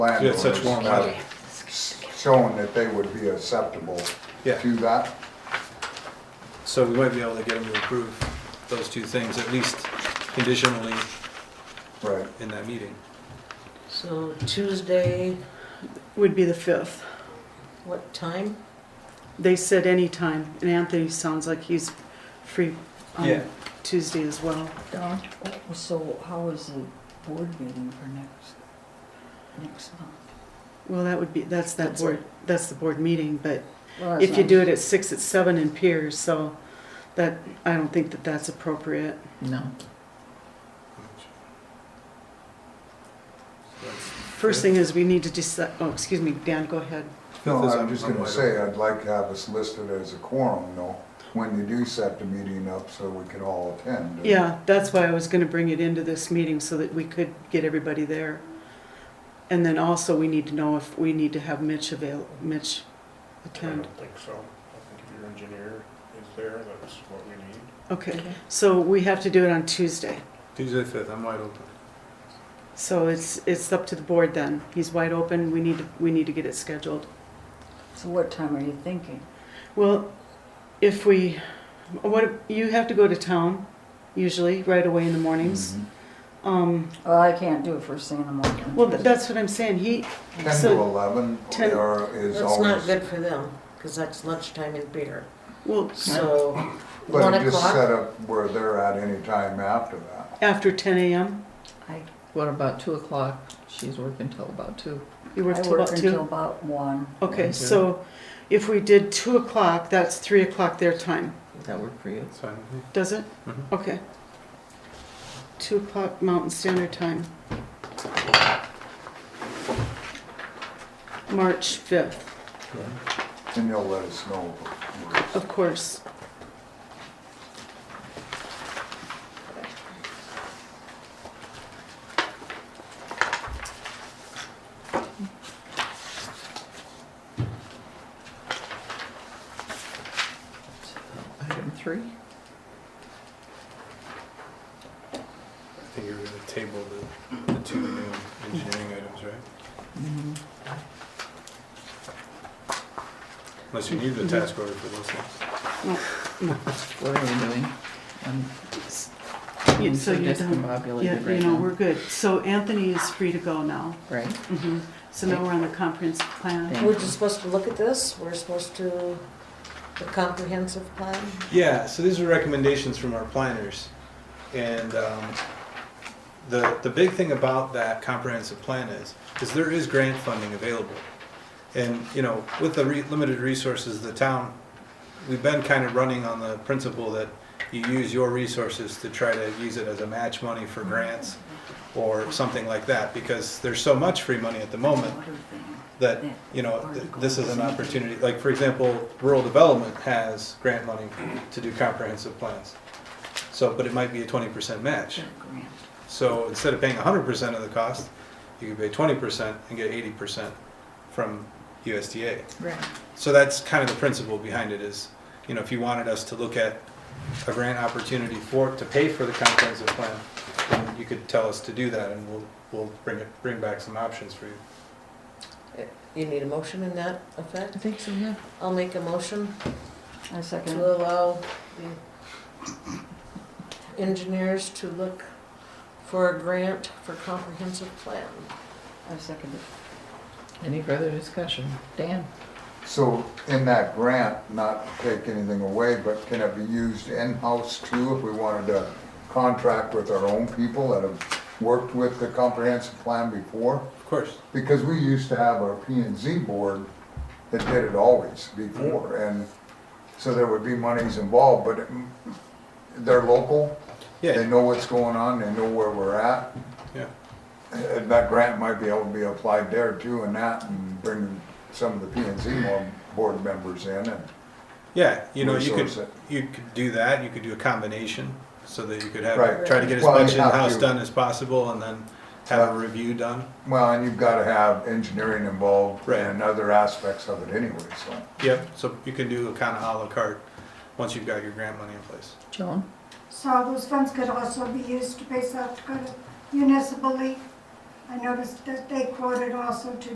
Yeah, landowners such warm have weather. shown that they would be acceptable Yeah. to that. So we might be able to get them to approve those two things, at least conditionally Right, in that meeting. So Tuesday, would be the 5th. what time? They said any time, and Anthony sounds like he's free Yeah. on Tuesday as well. Don, so how is the board meeting for next, next month? Well, that would be, that's that That's board, that's the board meeting, but Well, if you do it at 6, it's 7 in Piers, so that, I don't think that that's appropriate. No. First thing is we need to decide, oh, excuse me, Dan, go ahead. no, I'm just gonna say, I'd like to have us listed as a quorum, though, when you do set the meeting up, so we can all attend. Yeah, that's why I was gonna bring it into this meeting so that we could get everybody there. And then also, we need to know if we need to have Mitch avail, Mitch I don't attend. think so. I think if your engineer is there, that's what we need. Okay, so we have to do it on Tuesday. uh, Tuesday fifth, I'm wide open. So it's, it's up to the board then. He's wide open, we need, to we need to get it scheduled. So what time are you thinking? Well, if we, what, you have to go to town usually, right away in the mornings. Mhm. Mm-hmm. Um, Well, I can't do it first thing in the morning. well, th- that's what I'm saying, he, Ten to So- eleven, Ten- or is That's not always, good for them, because that's lunchtime in Peter. well, So one but just set o'clock, up where they're at any time after that. after ten AM, I, What about two o'clock? She's working till about two. you work I till work about until two? about one. Okay, Mhm. so if we did two o'clock, that's three o'clock their time, Does that work for you? It's fine. with me. does it? Mm-hmm. Mhm. Okay. Two o'clock Mountain Standard Time. March fifth, And you'll let us know. of course. Item three. I think you're gonna table the, the two new engineering items, right? Mm-hmm. Unless you need the task order for those things. What are we doing? Um, I'm- Yeah, I'm So so you're done. Yeah, discombobulated you right know, we're now. good. So Anthony is free to go now. Right, Mhm. So now we're on the comprehensive plan. Thank we're just supposed to look at this, we're supposed to, the comprehensive plan? Yeah, so these were recommendations from our planners. And, um, the, the big thing about that comprehensive plan is, is there is grant funding available. And, you know, with the re- limited resources of the town, we've been kind of running on the principle that you use your resources to try to use it as a match money for grants or something like that, because there's so much free money at the moment Water thing. that, you know, th- this is an opportunity, like, for example, rural development has grant money to do comprehensive plans. So, but it might be a twenty percent match. That grant. So instead of paying hundred percent of the cost, you could pay twenty percent and get eighty percent from USDA. right. So that's kind of the principle behind it is, you know, if you wanted us to look at a grant opportunity for, to pay for the comprehensive plan, then you could tell us to do that and we'll, we'll bring it, bring back some options for you. You need a motion in that effect? I think so, yeah. I'll make a motion I second. to allow the engineers to look for a grant for comprehensive plan. I second it. Any further discussion? Dan? So in that grant, not to take anything away, but can it be used in-house too if we wanted to contract with our own people that have worked with the comprehensive plan before? Of course. Because we used to have our P and Z board that did it always before, and so there would be monies involved, but it- they're local, they Yeah, know what's going on, they know where we're at. yeah. And that grant might be able to be applied there too and that, and bring some of the P and Z mo- board members in and Yeah, you know, you Resource could, it. you could do that, you could do a combination, so that you could have, Right. try to get as Well, you much have in-house to. done as possible, and then have a Yeah. review done. Well, and you've got to have engineering involved Right. and other aspects of it anyway, so. Yep, so you can do a kind of à la carte, once you've got your grant money in place. Joan? So those funds could also be used to pay South Dakota municipally I noticed that they quoted also to